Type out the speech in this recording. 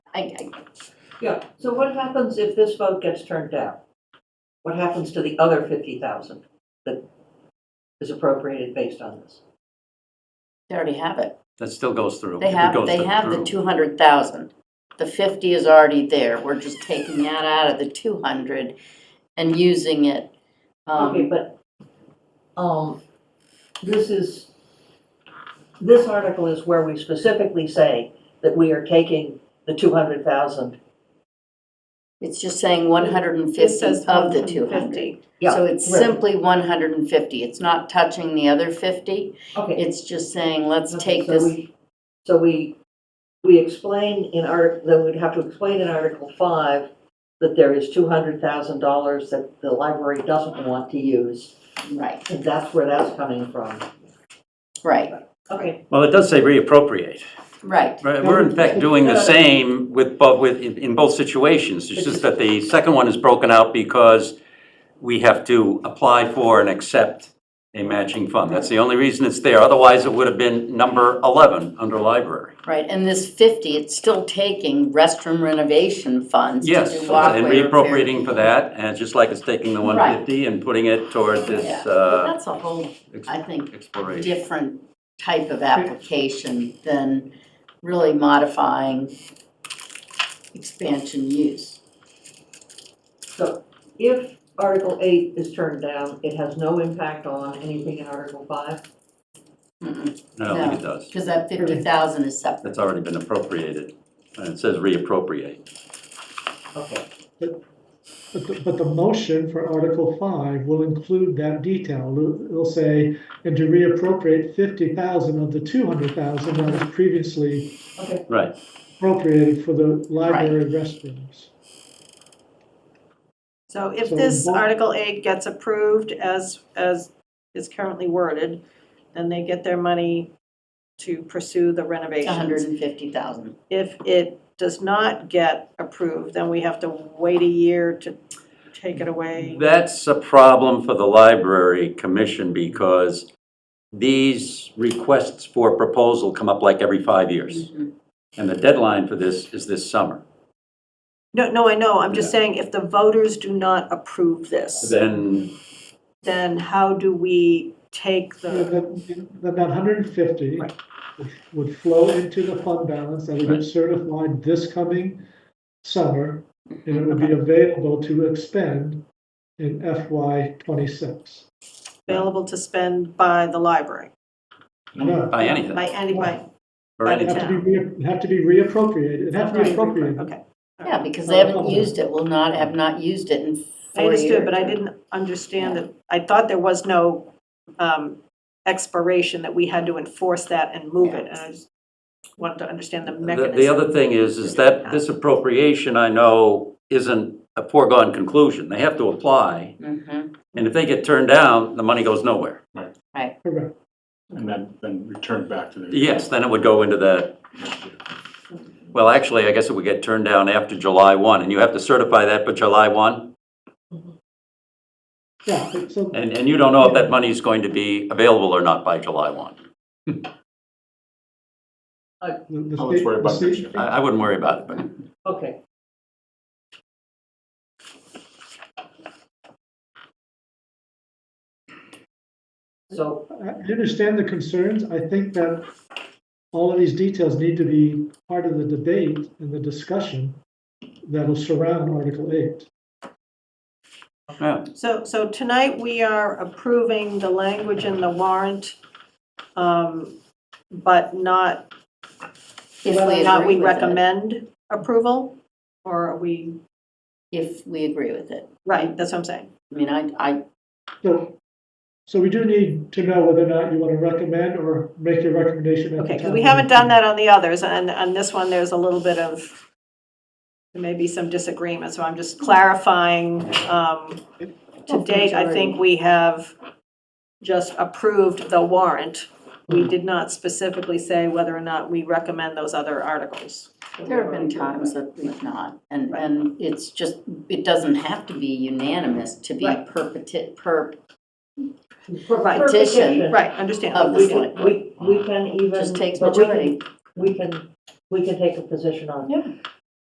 I, I, Yeah, so what happens if this vote gets turned down? What happens to the other fifty thousand that is appropriated based on this? they already have it. That still goes through. They It have, goes they through- have the through. two hundred thousand. The fifty is already there. We're just taking that out of the two hundred and using it. Okay, Um, but, um, this is, this article is where we specifically say that we are taking the two hundred thousand. it's just saying one hundred and fifty says of the 150. two hundred. Yeah, So it's right. simply one hundred and fifty. It's not touching the other fifty. Okay. It's just saying, let's Okay, take so this. we- So we, we explain in our, then we'd have to explain in Article Five that there is two hundred thousand dollars that the library doesn't want to use, Right, and that's where that's coming from. right, Okay. Well, it does say reappropriate. right. Right, We're in fact doing the same with, both with, in in both situations. It's just that the second one is broken out because we have to apply for and accept a matching fund. That's the only reason it's there. Otherwise, it would have been number 11 under library. Right, and this fifty, it's still taking restroom renovation funds to Yes, do and walkway repair. reappropriating for that, and just like it's taking the 150 and putting it toward this Yeah. But uh, That's a whole, ex- I think, exploration. different type of application than really modifying expansion use. So if Article Eight is turned down, it has no impact on anything in Article Five? Mm-hmm. Because I don't think it does. that fifty thousand is separate. That's already been appropriated, and it says reappropriate. Okay, But the, but the motion for Article five will include that detail. It'll- It'll say, and to reappropriate fifty thousand of the two hundred thousand that was previously okay, Right, appropriated for the library restrooms. So if So this what- Article 8 gets approved as, as is currently worded, then they get their money to pursue the hundred renovations. and fifty thousand. If it does not get approved, then we have to wait a year to take it away. that's a problem for the library commission because these requests for proposal come up like every five years. Mm-hmm. And the deadline for this is this summer. No, no, I know, I'm just saying, if the voters do not approve this, Then, then how do we take Yeah, the, That, that hundred and fifty Right. would flow into the fund balance that would Right. get certified this coming summer. And it would be available to expend in FY twenty-six. available to spend by the library, Mm-hmm. No, by anything, by any, by, or by it'd anything. have to be, rea- it'd have to be reappropriated, it'd have to be Right. appropriated. okay. Yeah, because they haven't used it, will not, have not used it in I four years. understood, but I didn't understand that, I thought there was no um, expiration, that we had to enforce that and move it. And I just wanted to understand the The- mechanism. The other thing is, is that this appropriation, I know, isn't a foregone conclusion. They have to apply, Mhm, and if they get turned down, the money goes nowhere. Correct. And then, then returned back to the. Yes, then it would go into that Well, actually, I guess it would get turned down after July 1, and you have to certify that by July 1? Yeah, but so, And, and you don't know if that money is going to be available or not by July 1. the- the Oh, let's state- worry the about state- next year. I, I wouldn't worry about it, but okay. So, I I understand the concerns. I think that all of these details need to be part of the debate and the discussion that'll surround Article eight. yeah, So, so tonight, we are approving the language in the warrant, um, but not, If whether we or not agree we with it, recommend approval, or are we, if we agree with it. right, that's what I'm saying. I mean, I, I, So, so we do need to know whether or not you want to recommend or make your recommendation. at the Okay, 'cause town we meeting. haven't done that on the others, and on this one, there's a little bit of, there may be some disagreement, so I'm just clarifying. um, To date, I think we have just approved the warrant. We did not specifically say whether or not we recommend those other articles. there have been times that we've not, and, and it's just, it doesn't have to be unanimous to be Right. per peti- per, per Petition. petition, Right, understand. Of we this can, we, we can even. just takes but we can- majority. We can, we can take a position on. Yeah.